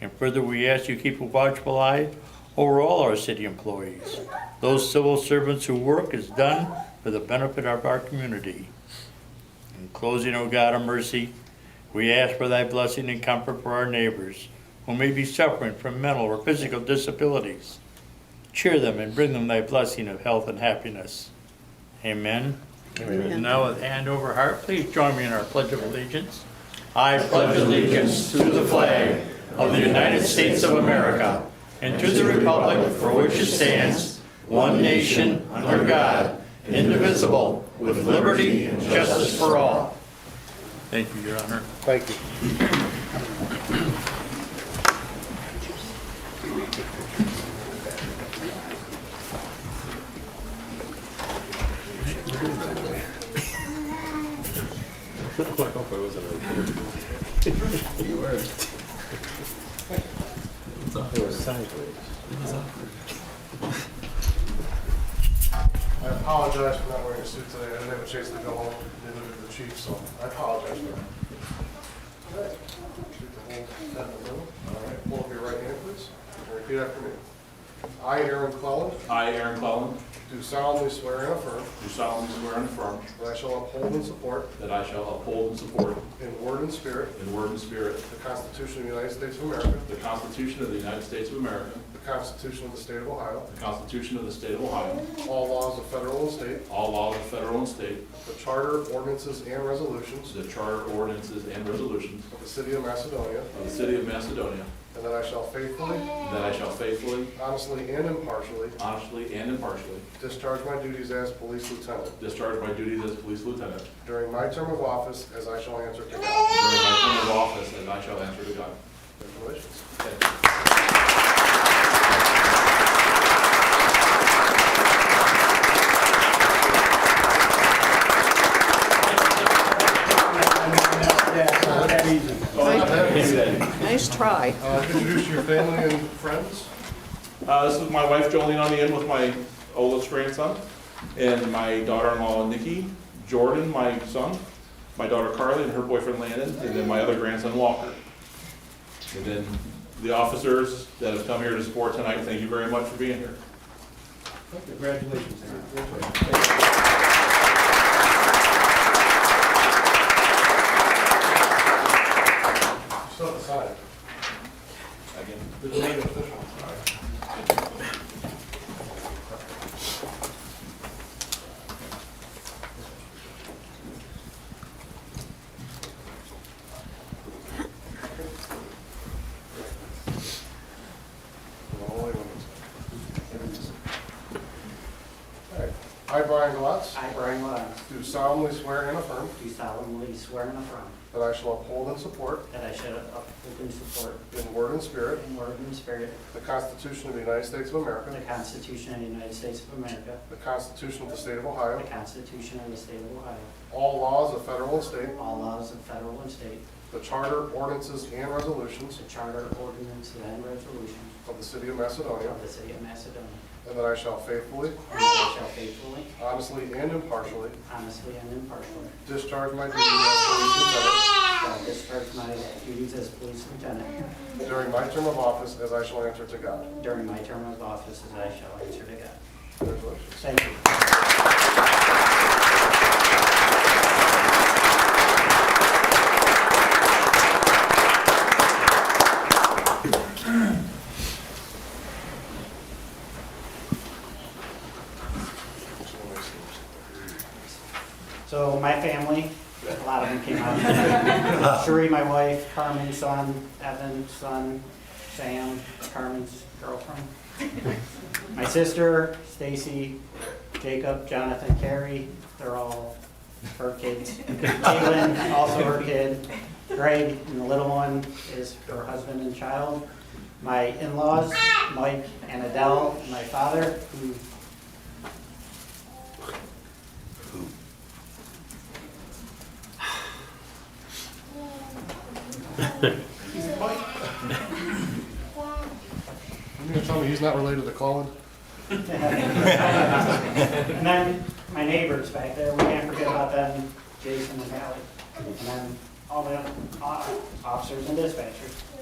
And further, we ask you keep a watchful eye over all our city employees, those civil servants whose work is done for the benefit of our community. In closing, O God of mercy, we ask for thy blessing and comfort for our neighbors who may be suffering from mental or physical disabilities. Cheer them and bring them thy blessing of health and happiness. Amen. And Now with hand over heart, please join me in our pledge of allegiance. I pledge allegiance to the flag of the United States of America and to the republic for which it stands, one nation, under God, indivisible, with liberty and justice for all. Thank you, Your Honor. Thank you. I apologize for not wearing a suit today. I didn't have a chance to go home, didn't live with the chief, so I apologize for that. All right, hold your right hand, please. and Repeat after me. I, Aaron Clellan, I, Aaron Cullen, do solemnly swear and affirm do solemnly swear and affirm that I shall uphold and support that I shall uphold and support in word and spirit in word and spirit the Constitution of the United States of America, the Constitution of the United States of America, the Constitution of the State of Ohio, the Constitution of the State of Ohio, all laws of federal and state, all laws of federal and state, the charter, ordinances, and resolutions the charter ordinances and resolutions of the City of Macedonia, of the City of Macedonia, and that I shall faithfully, and that I shall faithfully, honestly, and impartially honestly, and impartially discharge my duties as police lieutenant discharge my duties as police lieutenant during my term of office as I shall answer to God. during my term of office, and I shall answer to God. Congratulations. Thank you. Nice try. Uh, Introduce your family and friends. Uh, this is my wife Jolene on the end with my oldest grandson, and my daughter-in-law Nikki, Jordan, my son, my daughter Carly and her boyfriend Landon, and then my other grandson Walker. And then the officers that have come here to support tonight, thank you very much for being here. Still aside. Again, The delayed official. I, Brian Glatz, I, Brian Williams, do solemnly swear and affirm do solemnly swear and affirm that I shall uphold and support that I shall uphold and support in word and spirit in word and spirit the Constitution of the United States of the America, Constitution of the United States of America, the Constitution of the State of the Ohio, Constitution of the State of Ohio, all laws of federal and state, all laws of federal and state, the charter, ordinances, and resolutions the charter, ordinances, and resolutions of the City of Macedonia, of the City of Macedonia, and that I shall faithfully, and that I shall faithfully, honestly, and impartially honestly, and impartially discharge my duties as shall discharge my duties as police lieutenant police lieutenant during my term of office as I shall answer to God. during my term of office as I shall answer to God. Congratulations. Thank you. So my family, a lot of them came out. Sheree, my wife, Carmen's son, Evan's son, Sam, Carmen's girlfriend. My sister, Stacy, Jacob, Jonathan, Carrie, they're all her kids. Caitlin, also her kid. Greg, and the little one is her husband and child. My in-laws, Mike and Adele, my father, who You mean to tell me he's not related to Colin? And then my neighbors back there, we can't forget about them, Jason and Hallie. And then all the other o- officers and dispatchers.